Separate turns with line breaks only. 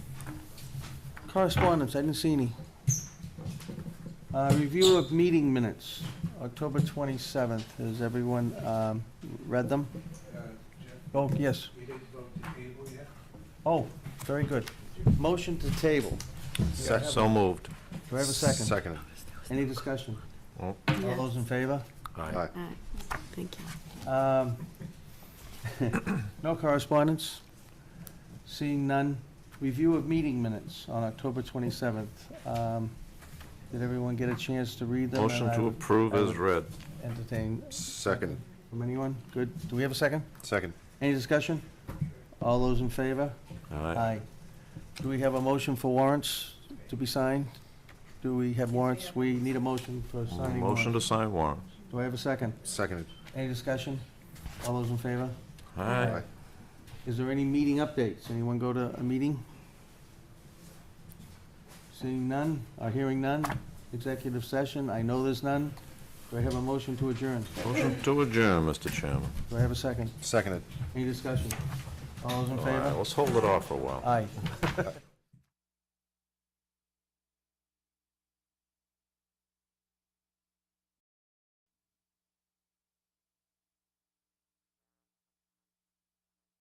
Correspondence, I didn't see any. Uh, Review of meeting minutes, October 27th. Has everyone um, read them? Oh, yes.
Uh, We didn't vote to table yet?
Oh, very good. Motion to table.
Sec- So moved.
Do I have a second?
Second.
Any discussion?
Oh.
All those in favor?
Aye.
All right, thank you.
Um, No correspondence? Seeing none. Review of meeting minutes on October 27th. Um, Did everyone get a chance to read them?
Motion
And I
to
would
approve
I
as
would-
read.
Entertain
Second.
from anyone? Good. Do we have a second?
Second.
Any discussion? All those in favor?
Aye.
Do we have a motion for warrants to be signed? Do we have warrants? We need a motion for signing warrants.
Motion to sign warrants.
Do I have a second?
Seconded.
Any discussion? All those in favor?
Aye.
Is there any meeting updates? Anyone go to a meeting? Seeing none, or hearing none? Executive session, I know there's none. Do I have a motion to adjourn?
Motion to adjourn, Mr. Chairman.
Do I have a second?
Seconded.
Any discussion? All those in
All right,
favor?
let's hold it off for a while.
Aye.